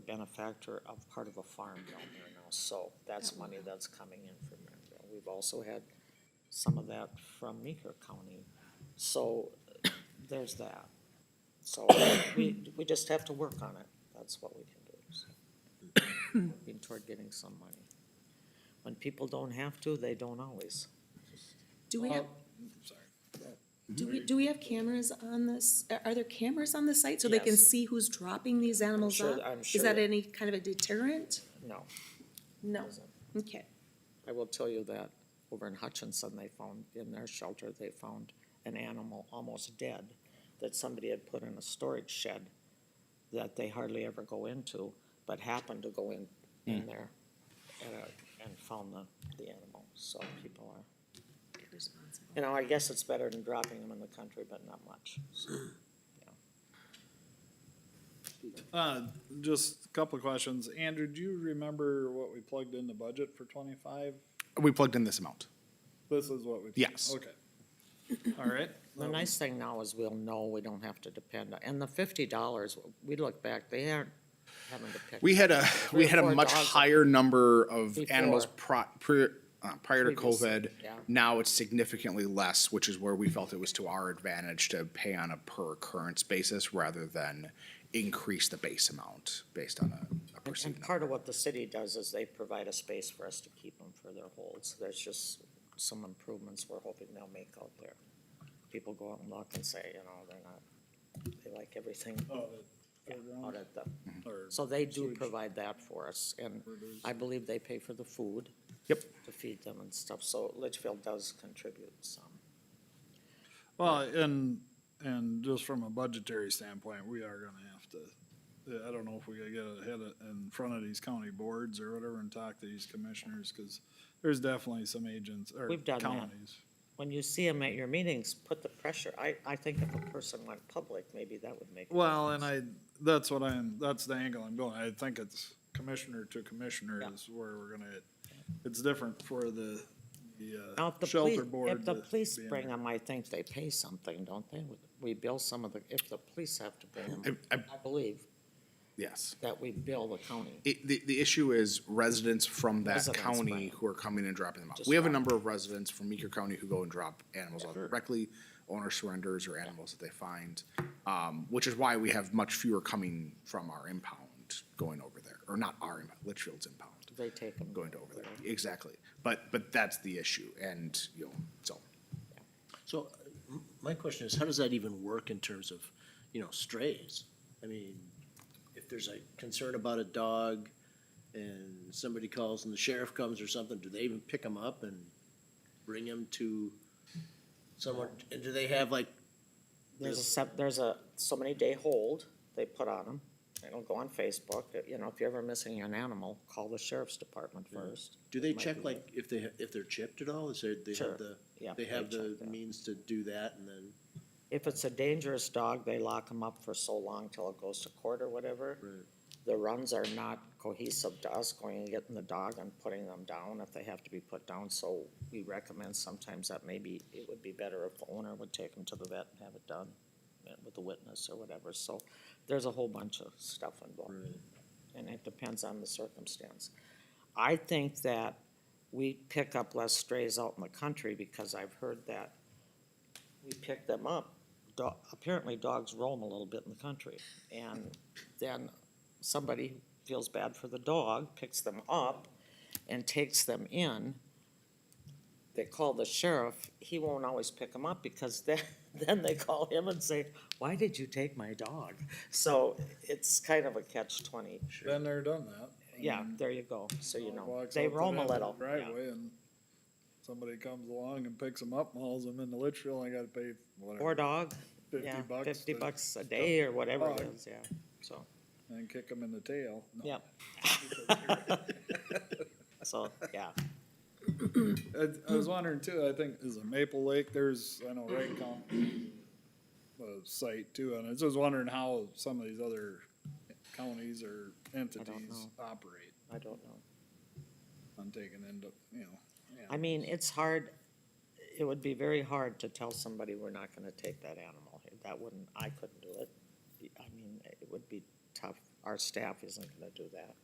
benefactor of part of a farm down there now, so that's money that's coming in from Maryville. We've also had some of that from Meeker County, so uh, there's that. So we, we just have to work on it, that's what we can do, so. Working toward getting some money. When people don't have to, they don't always. Do we Oh, have? Do we, do we have cameras on this, are- are there cameras on the site so they can Yes. see who's dropping these animals sure- off? I'm Is that sure. any kind of a deterrent? No. No, it isn't. okay. I will tell you that over in Hutchinson, they found, in their shelter, they found an animal almost dead that somebody had put in a storage shed that they hardly ever go into, but happened to go in, in there and, uh, and found the, the animal, so people are, you know, I guess it's better than dropping them in the country, but not much. So, Uh, just a couple of questions. Andrew, do you remember what we plugged in the budget for twenty-five? We plugged in this amount. This is what we. Yes. Okay. All right. The nice thing now is we'll know, we don't have to depend on, and the fifty dollars, we look back, they aren't having to pick. We had a, we or had four a much dogs. higher number of animals Before. pro, pri- uh, prior to Previous, COVID. yeah. Now it's significantly less, which is where we felt it was to our advantage to pay on a per occurrence basis rather than increase the base amount based on a- a And- perceived And number. part of what the city does is they provide a space for us to keep them for their holds. There's just some improvements we're hoping they'll make out there. People go out and look and say, you know, they're not, they like everything Oh, the out fairground at the, or- so they do Sewage. provide that for us. And I believe they pay for the food. Yep. To feed them and stuff, so Litchfield does contribute some. Well, and, and just from a budgetary standpoint, we are gonna have to, I don't know if we gotta get ahead of, in front of these county boards or whatever and talk to these commissioners, cause there's definitely some agents or We've done that. counties. When you see them at your meetings, put the pressure. I, I think if a person went public, maybe that would make. a Well, difference. and I, that's what I'm, that's the angle I'm going. I think it's commissioner to commissioner Yeah. is where we're gonna, it's different for the, Now, if the the uh, police, shelter board. if the to police be in bring there. them, I think they pay something, don't they? We bill some of the, if the police have to bring them, I- I- I believe Yes. that we bill the county. It, the, the issue is residents from that Residents, county right. who are coming and dropping them off. Just We have a drop. number of residents from Meeker County who go and drop animals off directly, owner surrenders or animals that they find. Um, which is why we have much fewer coming from our impound going over there, or not our impound, Litchfield's impound, They take them. going to over there, exactly. But, but that's the issue and, you know, so. So uh, m- my question is, how does that even work in terms of, you know, strays? I mean, if there's a concern about a dog and somebody calls and the sheriff comes or something, do they even pick them up and bring them to someone? And do they have like, There's a, sep- there's a, so many day hold they put on them. It'll go on Facebook, you know, if you're ever missing an animal, call the sheriff's department first. do they It might check be- like if they, ha- if they're chipped at all? Is there, they Sure. have the, Yeah, they have they the check that. means to do that and then? If it's a dangerous dog, they lock them up for so long till it goes to court or whatever. Right. The runs are not cohesive to us going and getting the dog and putting them down if they have to be put down, so we recommend sometimes that maybe it would be better if the owner would take them to the vet and have it done uh, with a witness or whatever, so there's a whole bunch of stuff involved. And it depends on the circumstance. I think that we pick up less strays out in the country because I've heard that we pick them up. Do- apparently dogs roam a little bit in the country and then somebody feels bad for the dog, picks them up and takes them in. They call the sheriff, he won't always pick them up because then, then they call him and say, why did you take my dog? So it's kind of a catch twenty. Been there, done that. Yeah, And there you go, so you know, walks they out to roam the a end of little, the yeah. Driveway and somebody comes along and picks them up, mauls them into Litchfield, and I gotta pay Or whatever, dog, fifty yeah, bucks. fifty to- bucks a day or whatever it dog. is, yeah, so, And kick them in the tail. No. yeah. So, yeah, I, I was wondering too, I think, is it Maple Lake, there's, I know Wright County, uh, site too, and I was just wondering how some of these other counties or entities know. operate I don't know. on taking into, you know. I mean, it's hard, it would be very hard to tell somebody we're not gonna take that animal. That wouldn't, I couldn't do it. I mean, it would be tough our staff isn't gonna do that.